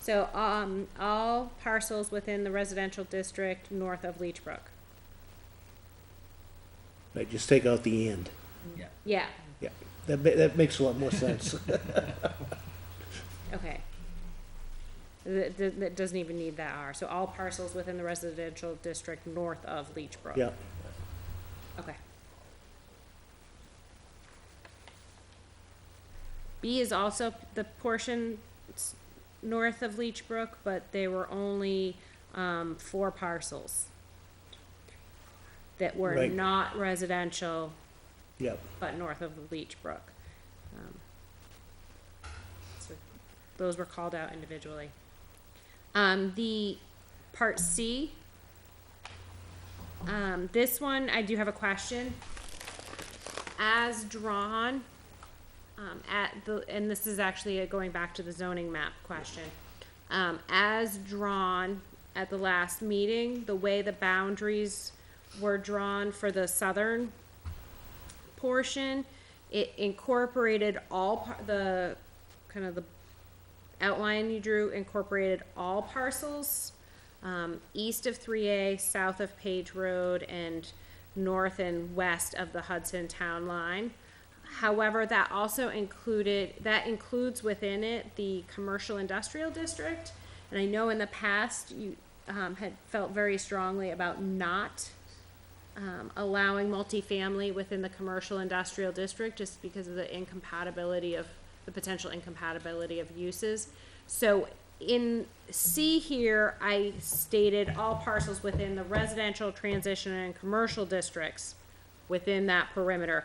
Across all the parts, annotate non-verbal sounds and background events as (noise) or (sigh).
So, um, all parcels within the residential district north of Leech Brook. Right, just take out the and. Yeah. Yeah, Yeah, that, ma- that makes a lot more sense. okay. That, that, that doesn't even need that R, so all parcels within the residential district north of Leech Brook. Yeah, Okay. B is also the portion s- north of Leech Brook, but they were only, um, four parcels that were Right. not residential, yeah, but north of Leech Brook. Um, so Those were called out individually. Um, the part C. Um, this one, I do have a question. As drawn, um, at the, and this is actually uh, going back to the zoning map question. Um, as drawn at the last meeting, the way the boundaries were drawn for the southern portion, it incorporated all par- the, kind of the outline you drew incorporated all parcels, um, east of three A, south of Page Road, and north and west of the Hudson Town Line. However, that also included, that includes within it the commercial industrial district. And I know in the past, you, um, had felt very strongly about not um, allowing multifamily within the commercial industrial district just because of the incompatibility of, the potential incompatibility of uses. So in C here, I stated all parcels within the residential transition and commercial districts within that perimeter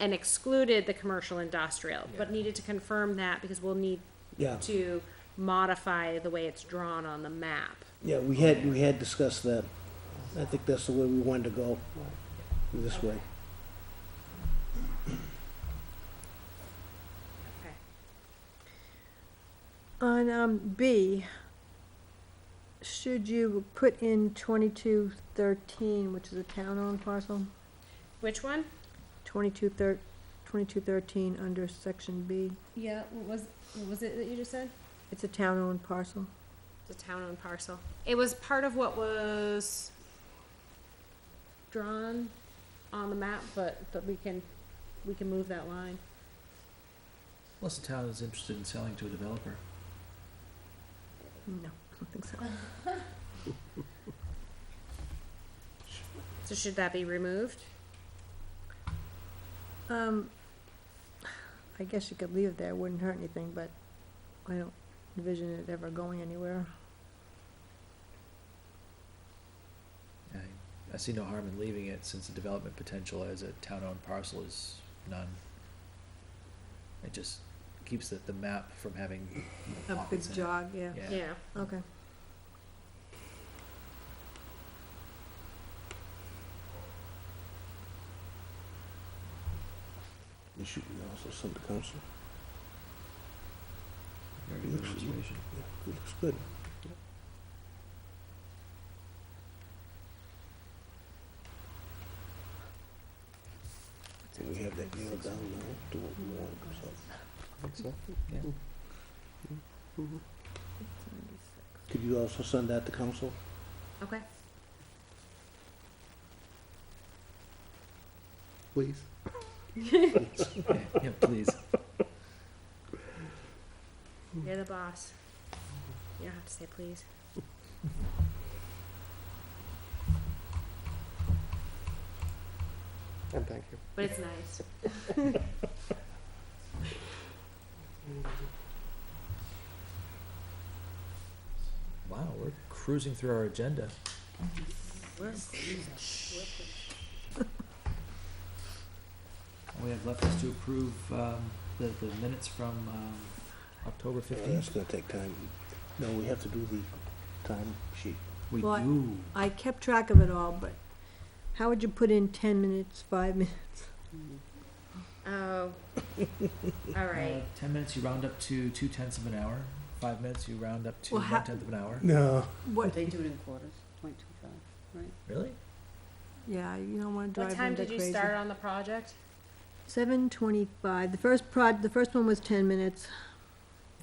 and excluded the commercial industrial, but needed to confirm that because we'll need Yeah. to modify the way it's drawn on the map. yeah, we had, we had discussed that. I think that's the way we wanted to go, this way. Okay. On um, B, should you put in twenty-two thirteen, which is a town-owned parcel? Which one? Twenty-two thir- twenty-two thirteen under section B, Yeah, what was, what was it that you just said? it's a town-owned parcel. The town-owned parcel. It was part of what was drawn on the map, but, but we can, we can move that line. Unless the town is interested in selling to a developer. No, I don't think so. So should that be removed? Um, I guess you could leave it there, it wouldn't hurt anything, but I don't envision it ever going anywhere. I, I see no harm in leaving it since the development potential as a town-owned parcel is none. It just keeps the, the map from having A big pockets in it. jog, yeah, Yeah, okay. You should also send to council. very good observation. Yeah, it Looks good. And we have that nailed down now, do what we want, so. Could you also send that to council? Okay. Please. Yeah, yeah, please. You're the boss. You don't have to say please. And Oh, thank you. But it's nice. Wow, we're cruising through our (laughs) agenda. All we have left is to approve, um, the, the minutes from, um, October That's fifteenth. gonna take time. No, we have to do the time sheet. We Well, I- do. I kept track of it all, but how would you put in ten minutes, five minutes? Oh, (laughs) all Uh, right. Ten minutes, you round up to two tenths of an hour. Five minutes, you round up to Well, ha- one tenth of an hour. No. What, They do it in quarters, point two five. Really? yeah, you don't wanna What drive them time that did you crazy. start on the project? Seven twenty-five, the first prod, the first one was ten minutes,